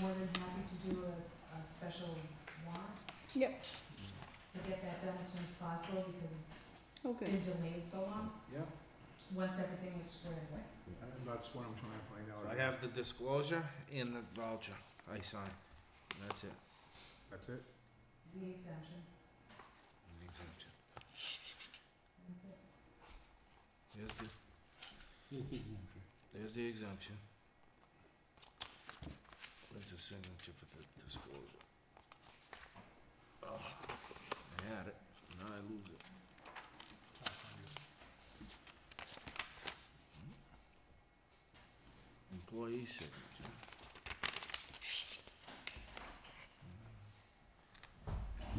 more than happy to do a, a special warrant. Yep. To get that done as soon as possible because it's Okay. been delayed so long, Yeah, once everything is squared away. and that's what I'm trying to find out. I have the disclosure and the voucher I signed. That's it. That's it? The exemption, The exemption. that's it. There's the. There's the exemption. Where's the signature for the disclosure? Oh, I had it, now I lose it. Hmm? Employee signature. Hmm.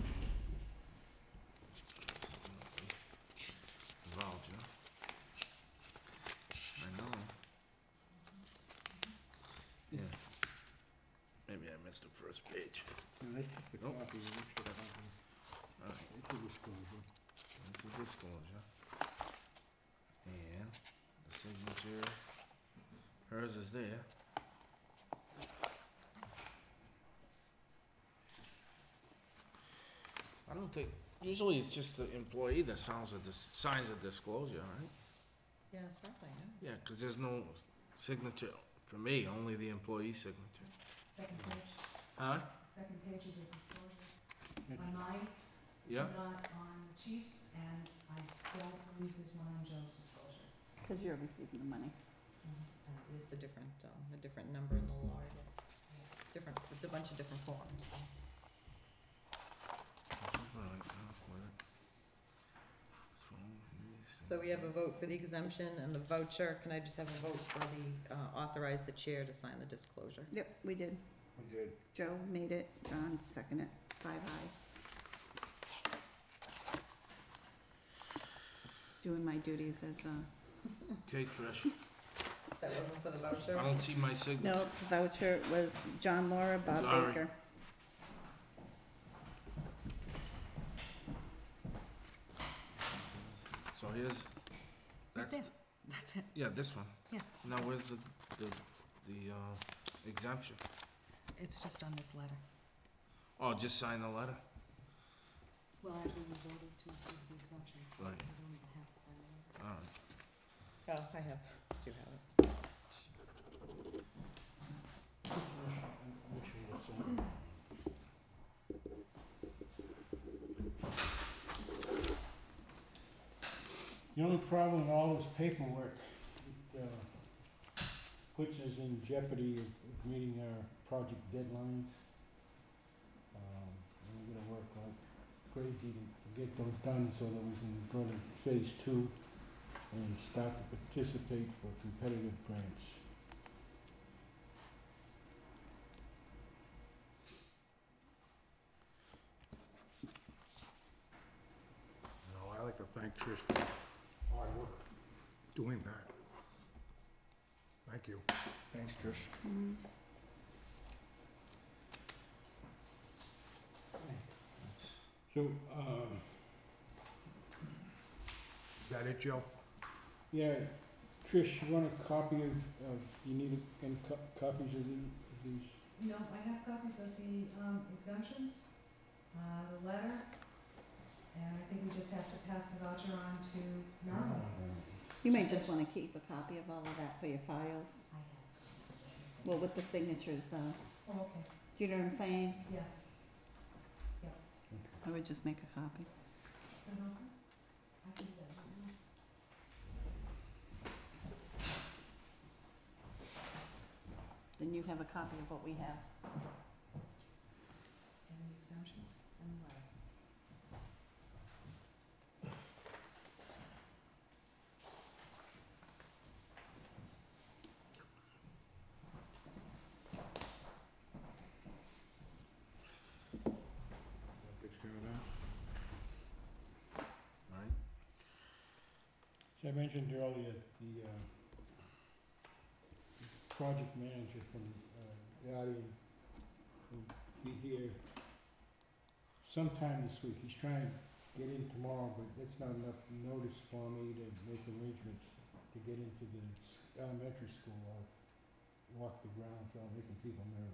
Voucher. I know. Yeah. Hmm. Maybe I missed the first page. that's just the Nope. copy, an extra That's- copy. Alright, It's a disclosure. this is disclosure. And the signature, hers is there. I don't think, usually it's just the employee that sounds a, dis- signs a disclosure, right? Yeah, as far as I know. Yeah, 'cause there's no signature for me, only the employee signature. Second page, Huh? second page of the disclosure. On mine, Yeah? not on Chief's, and I don't believe there's one on Joe's disclosure. Because you're receiving the money. It's a different, um, a different number in the law, yeah. different, it's a bunch of different forms, so. So we have a vote for the exemption and the voucher, can I just have a vote for the, uh, authorize the chair to sign the disclosure? Yep, we did. We did. Joe made it, John seconded it, five eyes. Doing my duties as a, Okay, Trish, That wasn't for the I voucher? don't see my signature. no, voucher was John Laura, Bob Sorry. Baker. So here's, That's that's, th- That's it. yeah, this one. Yeah. Now, where's the, the, the uh, exemption? It's just on this letter. Oh, just sign the letter. Well, actually, we voted to approve the exemption, so Right. we don't even have to sign it. All right. Oh, I have, do have it. The only problem with all this paperwork, it uh, puts us in jeopardy of of meeting our project deadlines. Um, and We're gonna work like crazy to to get those done so that we can go to phase two and start to participate for competitive grants. No, I like to thank Trish for hard work doing that. Thank you. Thanks, Trish. Mm, So, um, Is that it, Joe? yeah, Trish, you want a copy of, of, you need a- any co- copies of the- of these? No, I have copies of the um, exemptions, uh, the letter, and I think we just have to pass the voucher on to Norma. You may just wanna keep a copy of all of that for your files, I have. well, with the signatures though, Oh, okay, you know what I'm saying? yeah. I would just make a copy. Is that okay? I can do that. Then you have a copy of what we have. And the exemptions and the letter. Takes care of that. All right. As I mentioned earlier, the, uh, the project manager from, uh, Guardian will be here sometime this week. He's trying to get in tomorrow, but that's not enough notice for me to make arrangements to get into the s- elementary school. I'll walk the grounds, I'll making people nervous.